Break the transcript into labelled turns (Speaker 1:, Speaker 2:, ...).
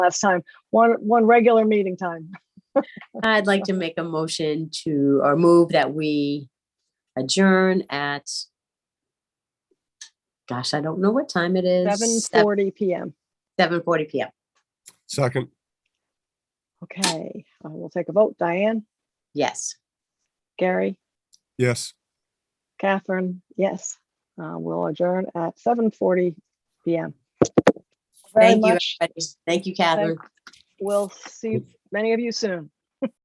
Speaker 1: last time, one, one regular meeting time.
Speaker 2: I'd like to make a motion to, or move that we adjourn at, gosh, I don't know what time it is.
Speaker 1: Seven forty PM.
Speaker 2: Seven forty PM.
Speaker 3: Second,
Speaker 1: Okay, uh, we'll take a vote. Diane,
Speaker 2: Yes.
Speaker 1: Gary,
Speaker 3: yes.
Speaker 1: Catherine, yes. Uh, we'll adjourn at seven forty PM. Very
Speaker 2: Thank you.
Speaker 1: much.
Speaker 2: everybody. Thank you, Catherine.
Speaker 1: We'll see many of you soon.